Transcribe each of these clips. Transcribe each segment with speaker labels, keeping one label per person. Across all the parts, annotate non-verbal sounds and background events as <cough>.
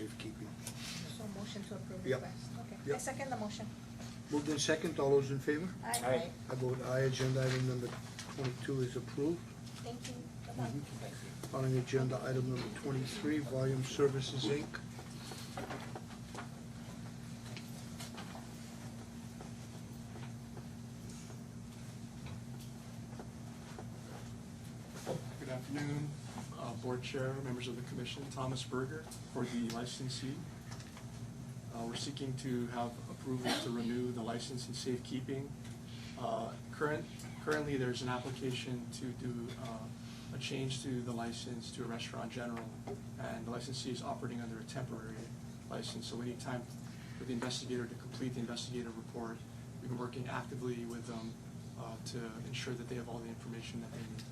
Speaker 1: safekeeping.
Speaker 2: So motion to approve
Speaker 1: Yep.
Speaker 2: request, okay. I
Speaker 1: Yep.
Speaker 2: second the motion.
Speaker 1: Moved in second, all those in favor?
Speaker 2: Aye.
Speaker 3: Aye.
Speaker 1: I vote aye, agenda item number twenty-two is approved.
Speaker 2: Thank you. Bye-bye.
Speaker 1: Mhm. Calling agenda item number twenty-three, Volume Services Inc.
Speaker 4: Good afternoon, uh, Board Chair, members of the commission, Thomas Berger for the licensee. Uh, We're seeking to have approval to renew the license in safekeeping. Uh, Current, currently, there's an application to do uh, a change to the license to a restaurant general, and the licensee is operating under a temporary license, so we need time for the investigator to complete the investigative report. We've been working actively with them uh, to ensure that they have all the information that they need.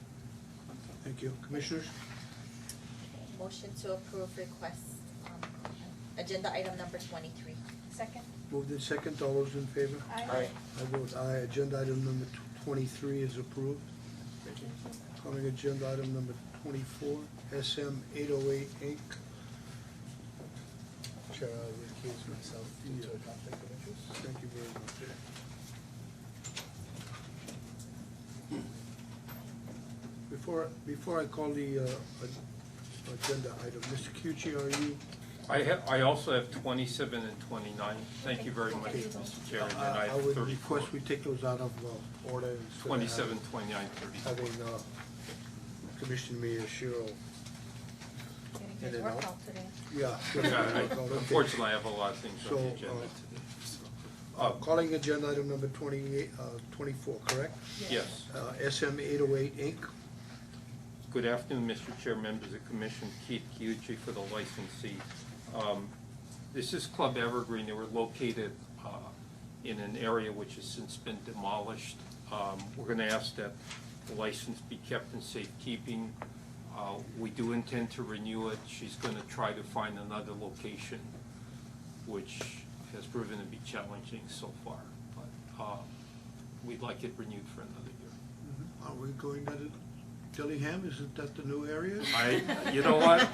Speaker 1: Thank you. Commissioners,
Speaker 5: Motion to approve request, um, agenda item number
Speaker 3: <laughs>
Speaker 5: twenty-three.
Speaker 2: Second.
Speaker 1: moved in second, all those in favor?
Speaker 2: Aye.
Speaker 1: I vote aye, agenda item number tw- twenty-three is approved.
Speaker 4: Thank you.
Speaker 1: Calling agenda item number twenty-four, SM eight oh eight Inc.
Speaker 6: Chair, I will recuse myself due to a conflict of interest.
Speaker 1: Thank you very much. Before, before I call the uh, a- agenda item, Mr. Kyuchi, are you,
Speaker 3: I have, I also have twenty-seven and twenty-nine. Thank you very much,
Speaker 1: Okay. Uh,
Speaker 3: Mr. Chair, and then
Speaker 1: I
Speaker 3: I
Speaker 1: I
Speaker 3: have
Speaker 1: would
Speaker 3: thirty-four.
Speaker 1: request we take those out of uh, order instead of
Speaker 3: Twenty-seven, twenty-nine,
Speaker 1: having-
Speaker 3: thirty-four.
Speaker 1: Having uh, Commissioner Miyashiro,
Speaker 2: Getting
Speaker 1: And
Speaker 2: his
Speaker 1: then
Speaker 2: work
Speaker 1: I'll- <laughs>
Speaker 2: out today.
Speaker 1: yeah.
Speaker 3: Yeah, <laughs> I-
Speaker 1: Okay.
Speaker 3: Unfortunately, I have a lot of things on
Speaker 1: So,
Speaker 3: the
Speaker 1: uh,
Speaker 3: agenda today. so.
Speaker 1: Uh,
Speaker 3: Uh,
Speaker 1: Calling agenda item number twenty-eight, uh, twenty-four, correct?
Speaker 3: Yes.
Speaker 1: Uh, SM eight oh eight Inc.,
Speaker 3: Good afternoon, Mr. Chair, members of the commission, Keith Kyuchi for the licensee. Um, This is Club Evergreen, they were located uh, in an area which has since been demolished. Um, We're going to ask that the license be kept in safekeeping. Uh, We do intend to renew it, she's going to try to find another location, which has proven to be challenging so far, but uh, we'd like it renewed for another year.
Speaker 1: are we going at it, Dillingham, isn't that the new area?
Speaker 3: I, you know what?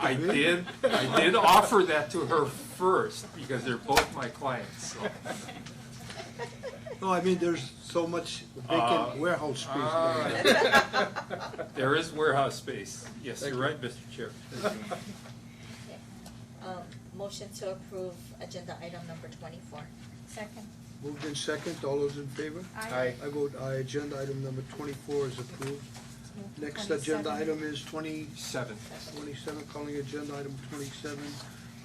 Speaker 3: I did, I did offer that to her first, because they're both my clients, so.
Speaker 1: No,
Speaker 3: Oh,
Speaker 5: <laughs>
Speaker 1: I mean, there's so much
Speaker 3: Uh,
Speaker 1: vacant warehouse space
Speaker 3: all
Speaker 1: down there.
Speaker 3: right. There is warehouse space. Yes,
Speaker 1: Thank
Speaker 3: you're
Speaker 1: you.
Speaker 3: right, Mr. Chair.
Speaker 5: Um, motion to approve agenda item number twenty-four.
Speaker 2: Second.
Speaker 1: Moved in second, all those in favor?
Speaker 2: Aye.
Speaker 1: I vote aye, agenda item number twenty-four is approved.
Speaker 2: Move to
Speaker 1: Next agenda
Speaker 2: 27.
Speaker 1: item is twenty,
Speaker 3: Seven.
Speaker 1: twenty-seven, calling agenda item twenty-seven,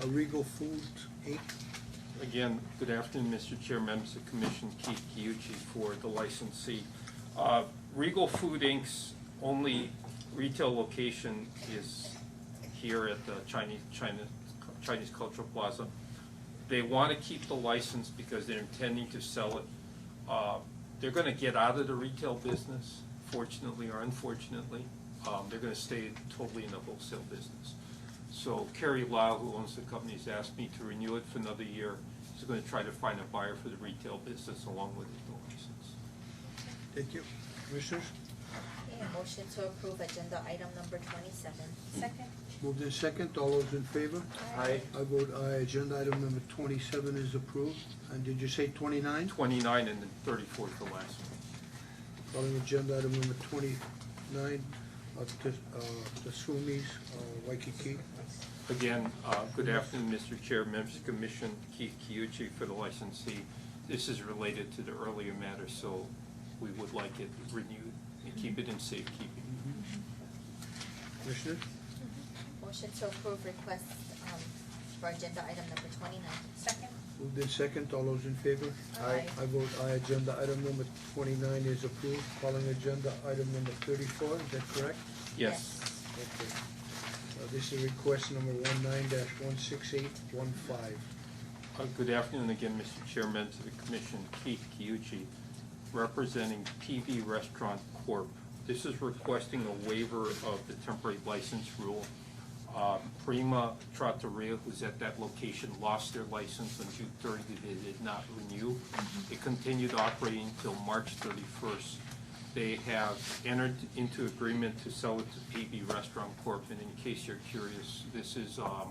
Speaker 1: Regal Foods Inc.
Speaker 3: Again, good afternoon, Mr. Chair, members of the commission, Keith Kiuchi for the licensee. Uh, Regal Food Inc.'s only retail location is here at the Chinese, China, Chinese Cultural Plaza. They want to keep the license because they're intending to sell it. Uh, They're going to get out of the retail business, fortunately or unfortunately. Um, They're going to stay totally in the wholesale business. So Kerry Lau, who owns the company, has asked me to renew it for another year. He's going to try to find a buyer for the retail business along with the license.
Speaker 1: Thank you. Commissioners,
Speaker 5: Okay, a motion to approve agenda item number twenty-seven.
Speaker 2: Second.
Speaker 1: moved in second, all those in favor?
Speaker 3: Aye.
Speaker 1: I vote aye, agenda item number twenty-seven is approved. And did you say twenty-nine?
Speaker 3: Twenty-nine and then thirty-four is the last one.
Speaker 1: Calling agenda item number twenty-nine, uh, Ts- uh, Tasumi's uh, Waikiki.
Speaker 3: Again, uh, good afternoon, Mr. Chair, members of the commission, Keith Kiuchi for the licensee. This is related to the earlier matter, so we would like it renewed and keep it in safekeeping.
Speaker 1: Commissioners,
Speaker 5: Motion to approve request, um, for agenda item number twenty-nine.
Speaker 2: Second.
Speaker 1: moved in second, all those in favor?
Speaker 5: Aye.
Speaker 1: I vote aye, agenda item number twenty-nine is approved. Calling agenda item number thirty-four, is that correct?
Speaker 3: Yes.
Speaker 1: Okay. Uh, This is request number one-nine dash one-six-eight-one-five.
Speaker 3: Uh, Good afternoon again, Mr. Chairman, to the commission, Keith Kiuchi, representing PV Restaurant Corp. This is requesting a waiver of the temporary license rule. Uh, Prima Trattoria, who's at that location, lost their license on June 30. They did not renew. They continued operating until March 31st. They have entered into agreement to sell it to PV Restaurant Corp. And in case you're curious, this is um,